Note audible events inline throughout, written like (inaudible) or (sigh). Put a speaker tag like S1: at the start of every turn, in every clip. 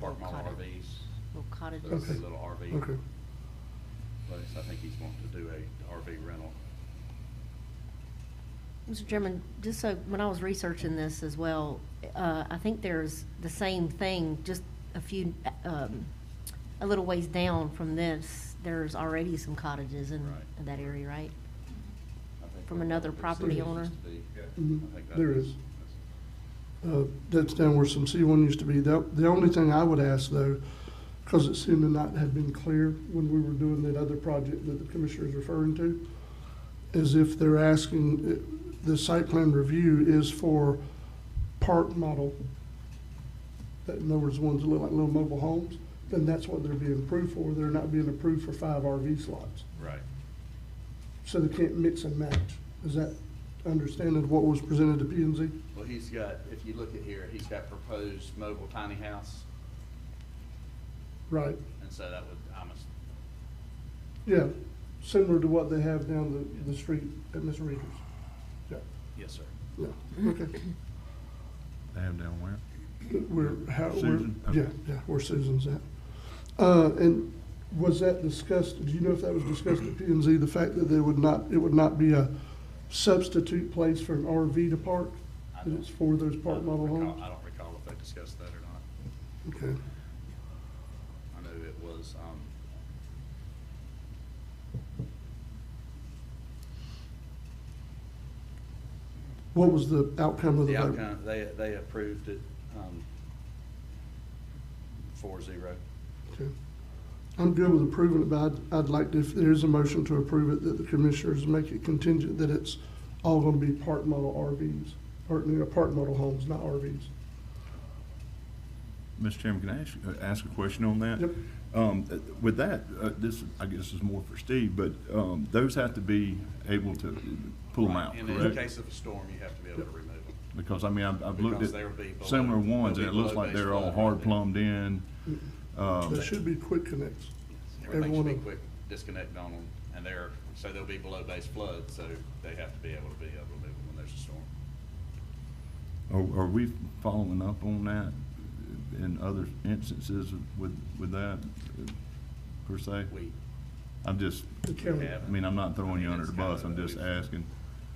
S1: park my
S2: Cottage.
S1: RVs,
S2: Little
S1: put up
S2: cottages.
S1: his
S3: Okay.
S1: little
S3: Okay,
S1: RV place. I think he's wanting to do a RV rental.
S2: Mr. Chairman, just so, when I was researching this as well, uh, I think there's the same thing, just a few, um, a little ways down from this, there's already some cottages in,
S1: Right.
S2: in that area, right?
S1: I think
S2: From
S1: that's
S2: another
S1: what the
S2: property
S1: city
S2: owner?
S1: used to be.
S3: Mhm.
S1: I think that
S3: There
S1: was-
S3: is.
S1: that's-
S3: uh, that's down where some C one used to be. The, the only thing I would ask though, because it seemed to not have been clear when we were doing that other project that the commissioner is referring to, is if they're asking, uh, the site plan review is for park model, that, in other words, ones that look like little mobile homes, then that's what they're being approved for. They're not being approved for five RV slots.
S1: Right.
S3: So they can't mix and match. Is that understanding of what was presented to P and Z?
S1: Well, he's got, if you look at here, he's got proposed mobile tiny house,
S3: Right,
S1: and so that would, I'm, ass-
S3: yeah, similar to what they have down the, the street at Miss Reader's. Yeah,
S1: yes, sir.
S3: yeah, okay.
S4: They have down where?
S3: We're, how, we're,
S4: Susan?
S3: yeah, yeah, where Susan's at. Uh, and was that discussed, do you know if that was discussed at P and Z, the fact that they would not, it would not be a substitute place for an RV to park?
S1: I
S3: That
S1: don't-
S3: it's for those
S1: I
S3: park
S1: don't
S3: model
S1: recall-
S3: homes?
S1: I don't recall if they discussed that or not.
S3: Okay,
S1: I know it was, um,
S3: what was the outcome of the
S1: the
S3: vote?
S1: outcome, they, they approved it, um, four zero.
S3: Okay. I'm good with approving it, but I'd, I'd like to, if there is a motion to approve it, that the commissioners make it contingent that it's all gonna be part model RVs, or, you know, part model homes, not RVs.
S4: Mr. Chairman, can I ask, uh, ask a question on that?
S3: Yep.
S4: Um, uh, with that, uh, this, I guess is more for Steve, but, um, those have to be able to pull them out,
S1: And in
S4: correct?
S1: case of a storm, you have to be able to remove them.
S4: Because, I mean, I've, I've looked
S1: Because they'll
S4: at
S1: be below-
S4: similar ones,
S1: they'll
S4: and
S1: be
S4: it looks
S1: below
S4: like they're
S1: base
S4: all
S1: flood.
S4: hard plumbed in.
S3: They
S4: Um,
S3: should be quick connects.
S1: Everything should
S3: Everyone
S1: be
S3: of-
S1: quick disconnect on them, and they're, so they'll be below base flood, so they have to be able to be able to move them when there's a storm.
S4: are, are we following up on that in other instances with, with that, uh, per se?
S1: We,
S4: I'm just,
S3: The county,
S4: I mean, I'm not throwing you under the bus, I'm just
S1: It's kinda-
S4: asking.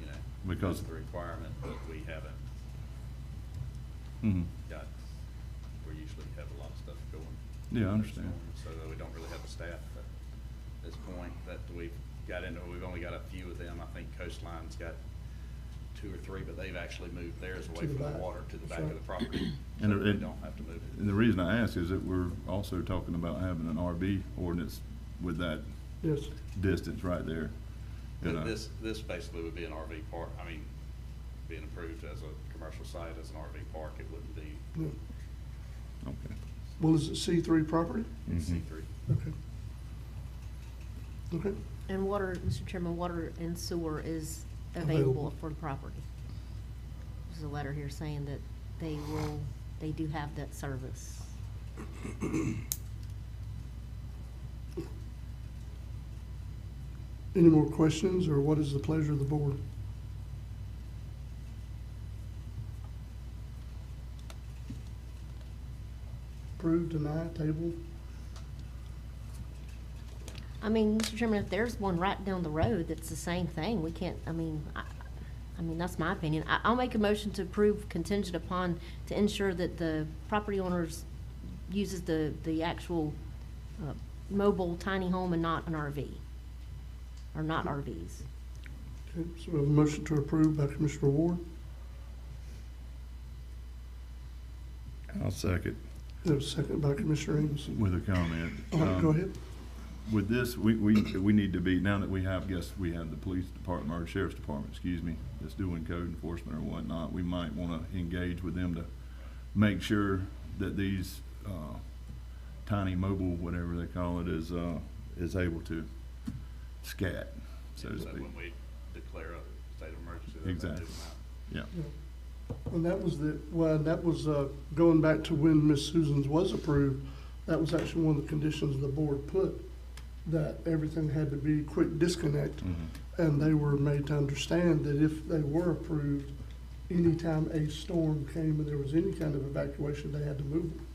S1: you know,
S4: Because-
S1: that's the requirement, but we haven't
S4: Mhm.
S1: got, we usually have a lot of stuff going.
S4: Yeah, I understand.
S1: So that we don't really have a staff at this point that we've got into, we've only got a few of them. I think Coastline's got two or three, but they've actually moved theirs away
S3: To the
S1: from the
S3: back.
S1: water to the
S3: That's
S1: back of
S3: right.
S1: the
S4: (clears throat)
S1: property. So
S4: And
S1: that
S4: it-
S1: they don't have to move it.
S4: And the reason I ask is that we're also talking about having an RB ordinance with that
S3: yes,
S4: distance right there. you know.
S1: But this, this basically would be an RV park, I mean, being approved as a commercial site, as an RV park, it wouldn't be
S3: yeah.
S4: Okay.
S3: Well, is it C three property?
S1: C
S4: Mhm.
S1: three.
S3: Okay. Okay,
S2: And water, Mr. Chairman, water and sewer is
S3: Available.
S2: available for the property. There's a letter here saying that they will, they do have that service.
S3: any more questions, or what is the pleasure of the board? Approve, deny, table?
S2: I mean, Mr. Chairman, if there's one right down the road that's the same thing, we can't, I mean, I, I mean, that's my opinion. I, I'll make a motion to approve contingent upon, to ensure that the property owners uses the, the actual, uh, mobile tiny home and not an RV. Or not RVs.
S3: Okay, so we have a motion to approve by Commissioner Ward,
S4: I'll second.
S3: and a second by Commissioner Amison.
S4: With a comment.
S3: All right, go
S4: Um,
S3: ahead.
S4: With this, we, we, we need to be, now that we have, guess, we have the police department, or sheriff's department, excuse me, that's doing code enforcement or whatnot, we might wanna engage with them to make sure that these, uh, tiny mobile, whatever they call it, is, uh, is able to scat, so to speak.
S1: when we declare a state of emergency, they do
S4: Exactly.
S1: that.
S4: Yeah,
S3: And that was the, well, that was, uh, going back to when Miss Susan's was approved, that was actually one of the conditions the board put, that everything had to be quick disconnect.
S4: mhm.
S3: And they were made to understand that if they were approved, anytime a storm came and there was any kind of evacuation, they had to move them.